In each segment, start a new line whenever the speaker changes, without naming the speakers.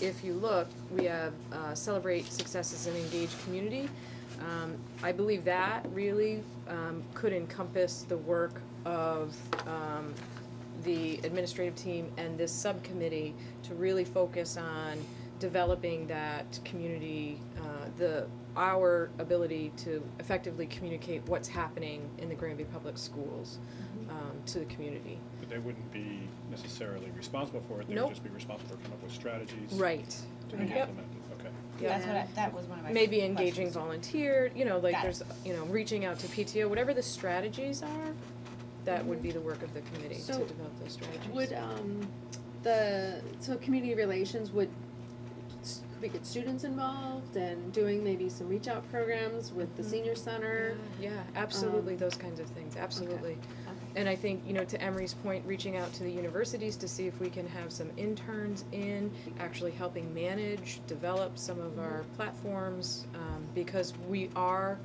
if you look, we have uh, celebrate successes and engage community. Um, I believe that really um, could encompass the work of um, the administrative team and this subcommittee to really focus on developing that community, uh, the, our ability to effectively communicate what's happening in the Granby Public Schools um, to the community.
But they wouldn't be necessarily responsible for it, they
Nope.
would just be responsible for coming up with strategies.
Right.
To be
Yep.
implemented, okay.
Yeah.
That's what I, that was one of my.
maybe
questions.
engaging volunteer, you know, like
Got it.
there's, you know, reaching out to PTO, whatever the strategies are, that would be the work of the committee to
So,
develop those strategies.
Would, um, the, so community relations would, s- could we get students involved and doing maybe some reach out programs with the
Mhm.
senior center?
Yeah, absolutely,
um,
those kinds of things, absolutely. And I think, you know, to Emery's point, reaching out to the universities to see if we can have some interns in, actually helping manage, develop some of our
Mm-hmm.
platforms, um, because we are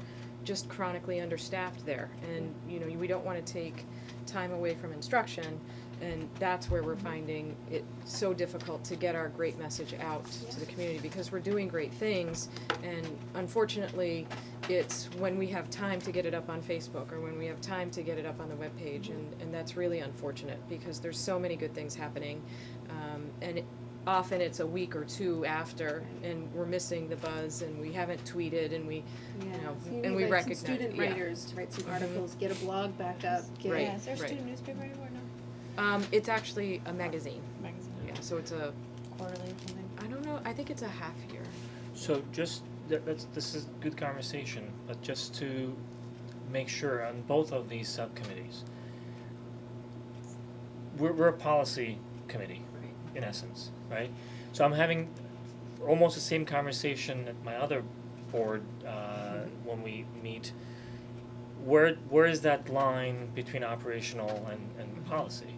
just chronically understaffed there. And, you know, we don't wanna take time away from instruction, and that's where we're finding it so difficult to get our great message out to the community, because we're doing great things, and unfortunately, it's when we have time to get it up on Facebook or when we have time to get it up on the webpage, and, and that's really unfortunate because there's so many good things happening. Um, and it- often it's a week or two after, and we're missing the buzz, and we haven't tweeted, and we,
Yeah,
know,
so you
and we
need, like, some
recognize-
student
yeah.
writers to write some articles, get a blog back up, get.
Right,
Yeah, is there a
right.
student newspaper anywhere now?
um, it's actually a magazine.
Magazine,
Yeah, so it's a,
quarterly or something?
I don't know, I think it's a half year.
So just, that, that's, this is good conversation, but just to make sure on both of these subcommittees. We're, we're a policy committee, in essence, right? So I'm having almost the same conversation at my other board, uh, when we meet. Where, where is that line between operational and, and policy?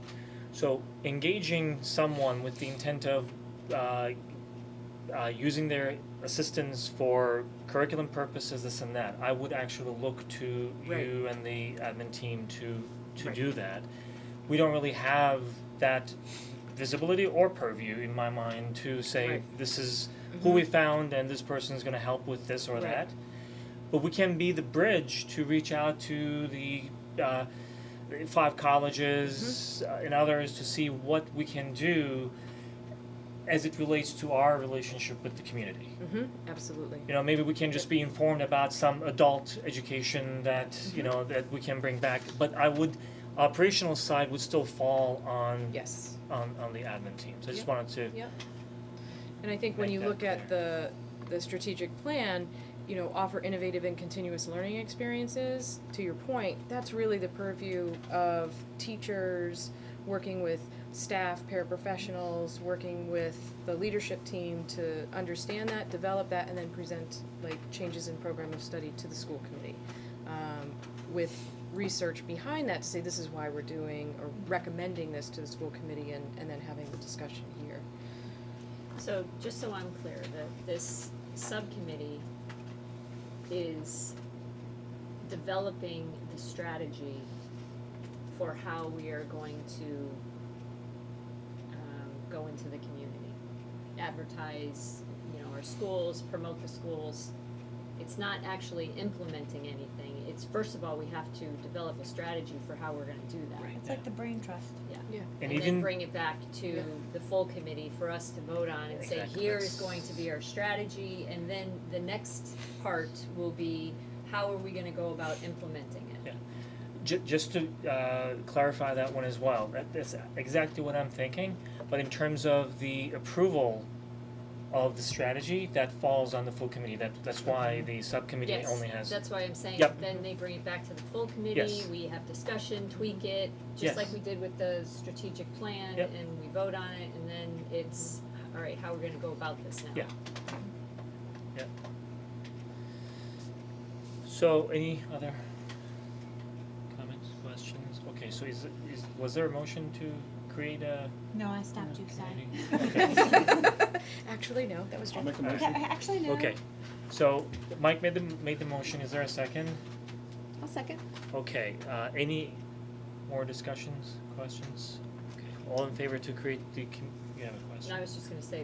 So engaging someone with the intent of, uh, uh, using their assistance for curriculum purposes, this and that, I would actually look to
Right.
you and the admin team to, to
Right.
do that. We don't really have that visibility or purview in my mind to say,
Right. Mm-hmm.
this is who we found and this person is gonna help with this or
Right.
that. But we can be the bridge to reach out to the, uh, five colleges uh, and others to see what we can do as it relates to our relationship with the community.
Mm-hmm, absolutely.
You know, maybe we can just be informed about some adult education that, you know, that we can bring back, but I would, operational side would still fall on
Yes.
on on the admin team. So I
Yep.
just wanted to
Yep. And I think when
Make
you
that
look at the, the strategic plan, you know, offer innovative and continuous learning experiences, to your point, that's really the purview of teachers, working with staff, paraprofessionals, working with the leadership team to understand that, develop that, and then present like changes in program of study to the school committee. Um, with research behind that to say this is why we're doing or recommending this to the school committee and, and then having the discussion here.
So just so I'm clear, that this subcommittee is developing the strategy for how we are going to um go into the community. Advertise, you know, our schools, promote the schools. It's not actually implementing anything. It's first of all, we have to develop a strategy for how we're gonna do that.
It's like the brain trust.
and
And then
even
bring it back
Yeah.
to the full committee for us to vote on and say,
Exactly.
here is going to be our strategy, and then the next part will be, how are we gonna go about implementing it?
ju- just to uh clarify that one as well, that that's exactly what I'm thinking, but in terms of the approval of the strategy, that falls on the full committee, that that's why the subcommittee
Yes,
only has
That's why I'm saying,
Yep.
then they bring it back to the full committee,
Yes.
we have discussion, tweak it,
Yes.
just like we did with the strategic plan,
Yep.
and we vote on it, and then it's, all right, how we're gonna go about this now.
Yeah. So any other comments, questions? Okay, so is is was there a motion to create a
No, I stopped you, sorry.
Actually, no, that was
I'll
Jen.
make a
Okay,
motion,
actually, no.
Okay. So Mike made the made the motion, is there a second?
I'll second.
Okay, uh any more discussions, questions? Okay, all in favor to create the com- you have a question?
And I was just gonna say,